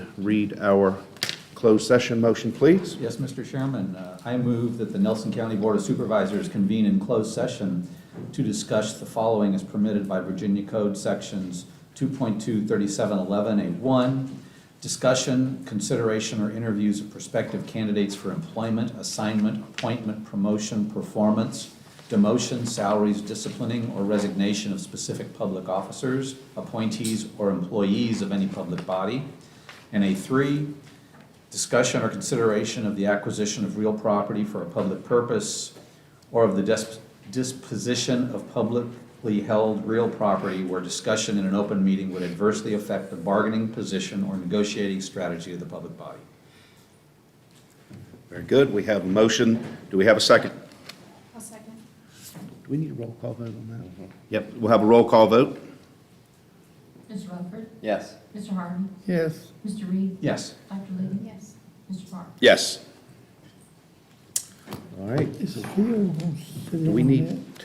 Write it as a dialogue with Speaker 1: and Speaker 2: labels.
Speaker 1: read our closed session motion, please?
Speaker 2: Yes, Mr. Chairman, uh, I move that the Nelson County Board of Supervisors convene in closed session to discuss the following as permitted by Virginia Code Sections 2.23711A1, discussion, consideration, or interviews of prospective candidates for employment, assignment, appointment, promotion, performance, demotion, salaries, disciplining, or resignation of specific public officers, appointees, or employees of any public body. And A3, discussion or consideration of the acquisition of real property for a public purpose or of the dis- disposition of publicly held real property where discussion in an open meeting would adversely affect the bargaining position or negotiating strategy of the public body.
Speaker 1: Very good, we have a motion. Do we have a second?
Speaker 3: i second.
Speaker 1: Do we need a roll call vote on that? Mm-hmm. Yep, we'll have a roll call vote.
Speaker 4: Mr. Rutherford?
Speaker 5: Yes.
Speaker 4: Mr. Harvey?
Speaker 6: Yes.
Speaker 4: Mr. Reed?
Speaker 2: Yes,
Speaker 4: Dr. Liddy?
Speaker 3: Yes.
Speaker 4: Mr. Parker?
Speaker 1: Yes. All right,
Speaker 6: Is a field,
Speaker 1: do we need